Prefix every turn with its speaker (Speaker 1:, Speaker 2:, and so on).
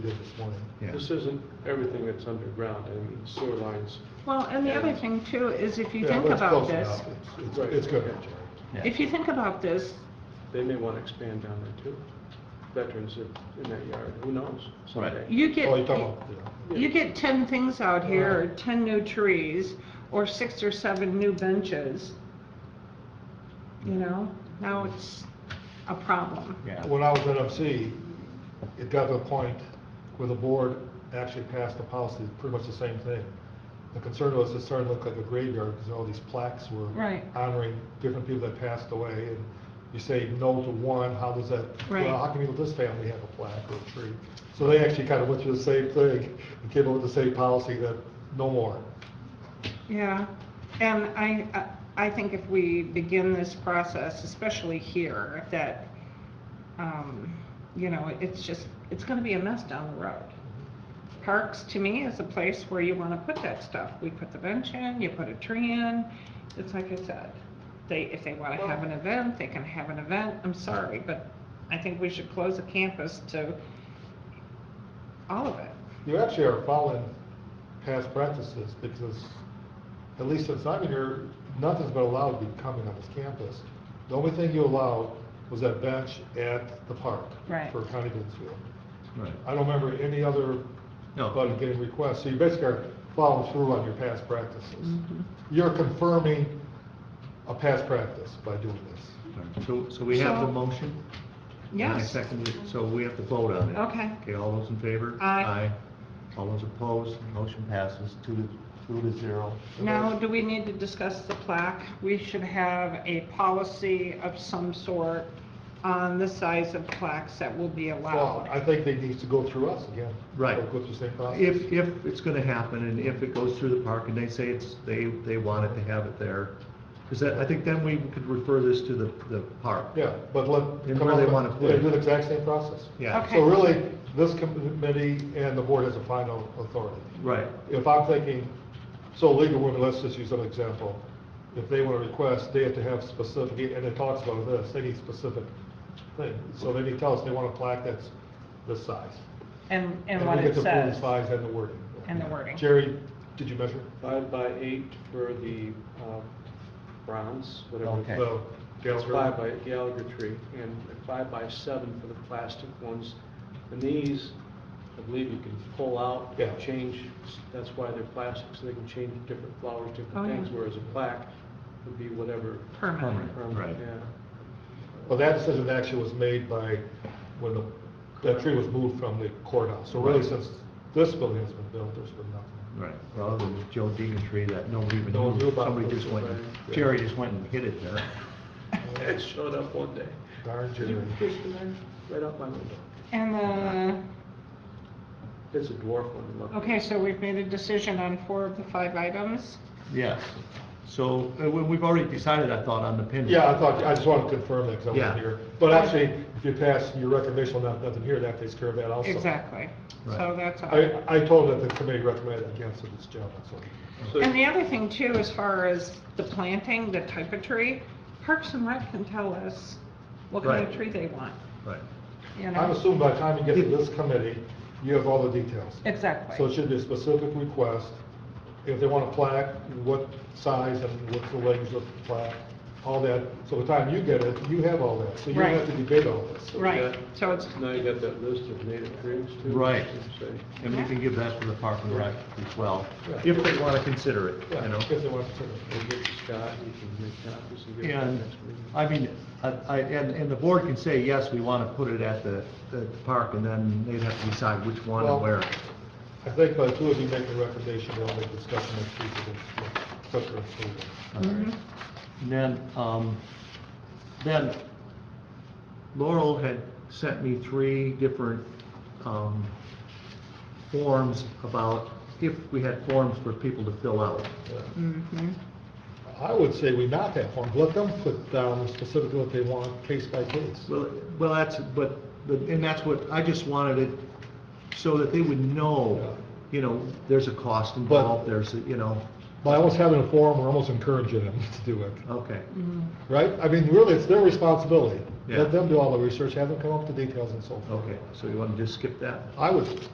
Speaker 1: did this morning.
Speaker 2: Yeah.
Speaker 3: This isn't everything that's underground, I mean, sewer lines.
Speaker 4: Well, and the other thing too is if you
Speaker 1: Yeah,
Speaker 4: think
Speaker 1: but it's
Speaker 4: about
Speaker 1: close
Speaker 4: this,
Speaker 1: enough. It's- It's, it's good.
Speaker 2: Yeah.
Speaker 4: if you think about this,
Speaker 3: They may want to expand down there too. Veterans that- in that yard, who knows? someday.
Speaker 4: you
Speaker 1: Oh, you're
Speaker 4: get,
Speaker 1: talking about, yeah. Uh-huh.
Speaker 4: you get ten things out here, or ten new trees, or six or seven new benches. You know, now it's a problem.
Speaker 2: Yeah.
Speaker 1: When I was at MC, it got to a point where the board actually passed a policy, pretty much the same thing. The concern was it started to look like a graveyard, because all these plaques were
Speaker 4: Right.
Speaker 1: honoring different people that passed away, and you say no to one, how does that,
Speaker 4: Right.
Speaker 1: well, how can you let this family have a plaque or a tree? So they actually kind of went through the same thing, and came up with the same policy that no more.
Speaker 4: Yeah, and I, I I think if we begin this process, especially here, that, um, you know, it's just, it's gonna be a mess down the road. Parks, to me, is a place where you wanna put that stuff. We put the bench in, you put a tree in, it's like I said. They, if they wanna have an event, they can have an event, I'm sorry, but I think we should close the campus to all of it.
Speaker 1: You actually are following past practices because, at least since I've been here, nothing's been allowed to be coming on this campus. The only thing you allowed was that bench at the park.
Speaker 4: Right.
Speaker 1: For County Pittsfield.
Speaker 2: Right.
Speaker 1: I don't remember any other
Speaker 2: No.
Speaker 1: budget getting requests, so you basically are following through on your past practices.
Speaker 4: Mm-hmm.
Speaker 1: You're confirming a past practice by doing this.
Speaker 2: So, so we have
Speaker 4: So-
Speaker 2: the motion? And I
Speaker 4: Yes,
Speaker 2: second it, so we have to vote on it.
Speaker 4: Okay.
Speaker 2: Okay, all those in favor?
Speaker 4: Aye.
Speaker 2: All those opposed, motion passes two to, two to zero.
Speaker 4: Now, do we need to discuss the plaque? We should have a policy of some sort on the size of plaques that will be
Speaker 1: Well, I
Speaker 4: allowed.
Speaker 1: think they need to go through us again.
Speaker 2: Right.
Speaker 1: Go through the same process.
Speaker 2: If, if it's gonna happen, and if it goes through the park, and they say it's, they, they wanted to have it there, is that, I think then we could refer this to the, the park.
Speaker 1: Yeah, but let.
Speaker 2: And
Speaker 1: come
Speaker 2: where
Speaker 1: up
Speaker 2: they
Speaker 1: with-
Speaker 2: wanna put
Speaker 1: yeah,
Speaker 2: it.
Speaker 1: Do the exact same process.
Speaker 2: Yeah.
Speaker 4: Okay.
Speaker 1: So really, this committee and the board has a final authority.
Speaker 2: Right,
Speaker 1: If I'm thinking, so legal women, let's just use an example. If they want to request, they have to have specific, and it talks about this, they need specific thing. So they need to tell us they want a plaque that's this size.
Speaker 4: And, and what
Speaker 1: we get to
Speaker 4: it
Speaker 1: approve the
Speaker 4: says,
Speaker 1: Size and the wording.
Speaker 4: and the wording.
Speaker 1: Jerry, did you measure?
Speaker 3: Five by eight for the uh, bronze, whatever.
Speaker 2: Okay.
Speaker 1: The
Speaker 3: It's
Speaker 1: Gallagher?
Speaker 3: five by Gallagher tree, and five by seven for the plastic ones. And these, I believe you can pull out,
Speaker 1: Yeah.
Speaker 3: change, that's why they're plastic, so they can change different flowers,
Speaker 4: Oh,
Speaker 3: different
Speaker 4: yeah.
Speaker 3: things, whereas a plaque would be whatever.
Speaker 4: Permanent.
Speaker 2: Permanent.
Speaker 3: um,
Speaker 2: Right.
Speaker 3: Yeah.
Speaker 1: Well, that decision actually was made by, when the, that tree was moved from the courthouse. So really,
Speaker 2: Right.
Speaker 1: since this building has been built, there's been nothing.
Speaker 2: right. Well, the Joe Deegan tree that nobody even
Speaker 1: No one knew
Speaker 2: knew,
Speaker 1: about
Speaker 2: somebody
Speaker 1: it.
Speaker 2: just went, and-
Speaker 1: Right.
Speaker 2: Jerry just went and hit it there.
Speaker 3: It showed up one day.
Speaker 1: Darn
Speaker 3: Did you
Speaker 1: Jerry.
Speaker 3: push in there? Right out my window.
Speaker 4: And the,
Speaker 3: It's a dwarf one. look.
Speaker 4: okay, so we've made a decision on four of the five items?
Speaker 2: Yes. So, uh, we- we've already decided, I thought, on the pin.
Speaker 1: Yeah, I thought, I just wanted to confirm that because I
Speaker 2: Yeah.
Speaker 1: wasn't here. But actually, if you pass your recommendation on not- nothing here, that takes care of that also.
Speaker 4: Exactly. So
Speaker 2: Right.
Speaker 4: that's all.
Speaker 1: I, I told that the committee recommended against this job, so.
Speaker 3: So-
Speaker 4: And the other thing too, as far as the planting, the type of tree, Parks and Rec can tell us what kind of
Speaker 2: Right.
Speaker 4: tree they want,
Speaker 2: Right.
Speaker 4: you
Speaker 1: I'm
Speaker 4: know?
Speaker 1: assuming by the time you get to this committee, you have all the details.
Speaker 4: Exactly.
Speaker 1: So it should be a specific request. If they want a plaque, what size and what's the length of the plaque, all that. So by the time you get it, you have all that. So you don't have to
Speaker 4: Right.
Speaker 1: debate all this.
Speaker 4: Right, so it's,
Speaker 3: Now you got that list of native trees too.
Speaker 2: Right.
Speaker 3: Say,
Speaker 2: And we can give that to the park and rec as well,
Speaker 1: Right.
Speaker 2: if they want to consider it, you
Speaker 1: Yeah,
Speaker 2: know?
Speaker 1: if they want to. consider it.
Speaker 3: We'll get to Scott, you can make copies and get them
Speaker 2: And,
Speaker 3: next meeting.
Speaker 2: I mean, I, I- and, and the board can say, yes, we want to put it at the, the park, and then they'd have to decide which one
Speaker 1: Well-
Speaker 2: and where.
Speaker 1: I think by the two of you making a recommendation, they'll make discussion of feasible, quicker and smoother.
Speaker 2: And
Speaker 4: Mm-hmm.
Speaker 1: mm-hmm.
Speaker 2: then, um, then Laurel had sent me three different, um, forms about if we had forms for people to fill out.
Speaker 1: Yeah.
Speaker 4: mhm.
Speaker 1: I would say we not have one, let them put down specifically what they want, case by case.
Speaker 2: Well, well, that's, but, but, and that's what, I just wanted it so that they would know, you know, there's a cost involved, there's, a you know,
Speaker 1: By almost having a forum, we're almost encouraging them to do it.
Speaker 2: okay,
Speaker 1: Right? I mean, really, it's their responsibility.
Speaker 2: Yeah.
Speaker 1: Let them do all the research, have them come up with the details and so forth.
Speaker 2: okay. So you want to just skip that?
Speaker 1: I would